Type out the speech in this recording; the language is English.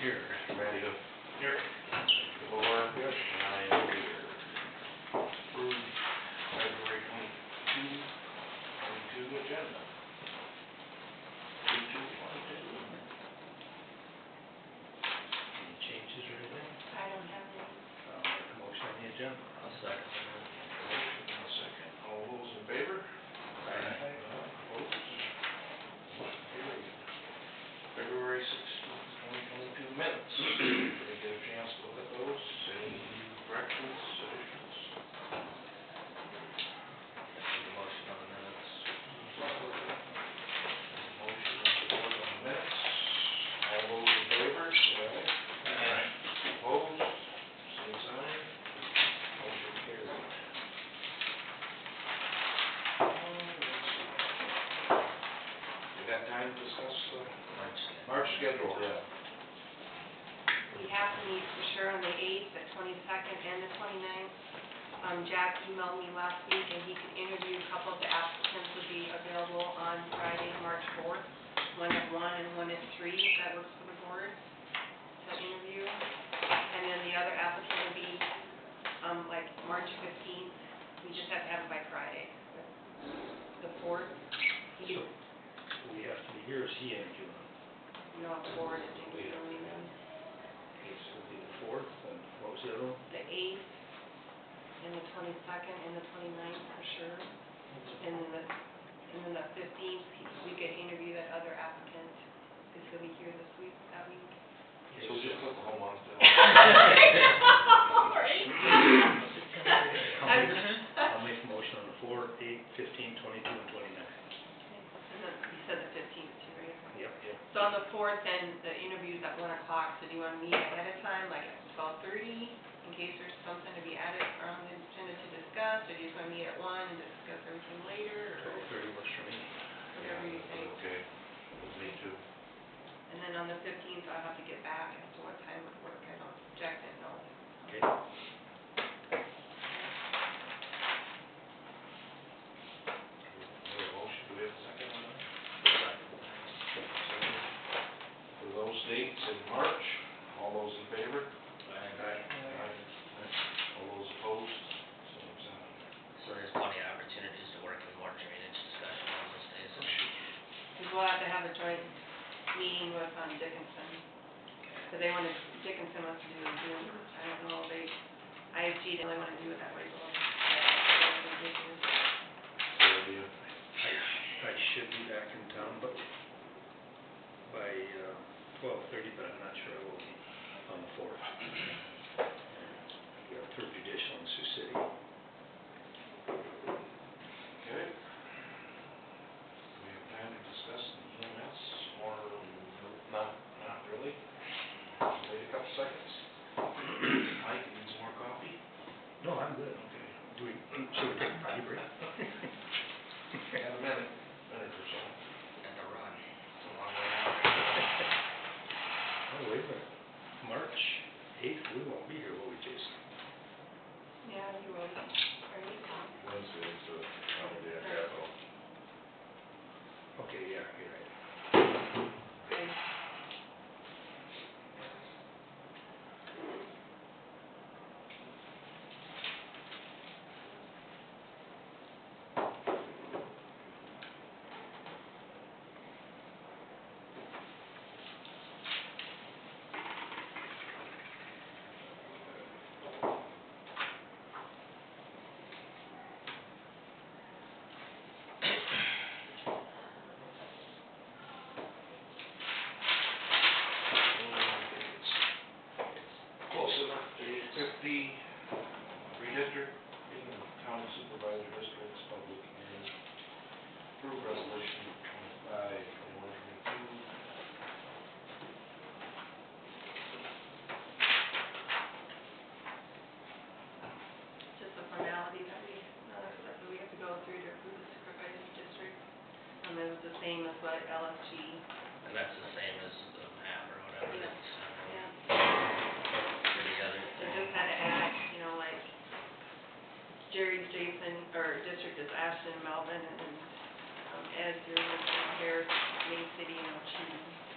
Here, ready to. Here. Four, nine, here. Approved February twenty-two, twenty-two agenda. Twenty-two, twenty-two. Any changes or anything? I don't have any. I'll make a motion on the agenda. I'll second. Motion and a second. All those in favor? Aye. Opposed? Carried. February sixteenth, twenty twenty-two minutes. Did you get a chance to look at those? Any corrections, additions? Motion on the minutes. Motion and support on the minutes. All those in favor? Aye. Aye. Opposed? Same sign. Motion carried. You got time to discuss the? March schedule. Yeah. We have to meet for sure on the eighth, the twenty-second, and the 29th. Um, Jack emailed me last week, and he can interview a couple of the applicants would be available on Friday, March fourth. One at one and one at three, if that works for the board, to interview. And then the other applicant would be, um, like, March fifteenth. We just have to have it by Friday. The fourth, you, We have to be here, is he in June? you know, the board, I think, we don't even. Okay, so it'll be the fourth, and what was the other one? the eighth, and the twenty-second, and the 29th for sure. And then the, and then the fifteenth, we could interview that other applicant, who's gonna be here this week, that week. So just put the whole month down. Sorry. I'll make a motion on the four, eight, fifteen, twenty-two, and twenty-nine. And then You said the fifteenth too, right? Yep, yep. So on the fourth, then, the interview's at one o'clock, so do you wanna meet ahead of time, like at twelve thirty? In case there's something to be added or on the agenda to discuss, or do you just wanna meet at one and discuss everything later, or Twelve thirty works for me. whatever you think? Okay, me too. And then on the fifteenth, I'll have to get back as to what time would work, I don't, Jack didn't know. Okay. We have a motion, do we have a second on that? Second. For those dates in March, all those in favor? Aye. Aye. All those opposed, same sign. So there's plenty of opportunities to work in more drainage discussion on those days. Because we'll have to have a joint meeting with, um, Dickinson, because they wanna, Dickinson wants to do a Zoom, I don't know, they, IFG, they only wanna do it that way, so. So it'll be a I, I should be back in town, but by, uh, twelve thirty, but I'm not sure I will be on the fourth. We have third judicial in Sioux City. Okay. We have time to discuss the EMS or not, not really? Wait a couple seconds. Mike needs more coffee. No, I'm good. Okay. Do we, should we take a potty break? Oh, Got a minute, minute or so. At the run. It's a long way Oh, wait a minute. March eighth, we won't be here, will we, Jason? Yeah, you will, are you? Wednesday, so, yeah, yeah. Okay, yeah, you're right. Okay. Close enough to accept the redistrict, in the county supervisor districts, public hearing. Approve resolution twenty-five, twenty-one, twenty-two. just a formality that we, another step that we have to go through to approve the supervisor's district. And it was the same as what LFG, And that's the same as the map or whatever um, that's yeah, put together. they just had to add, you know, like, Jerry's Jason, or district is Ashton, Melvin, and, um, Ed's, yours is down here, Main City, and Ochi.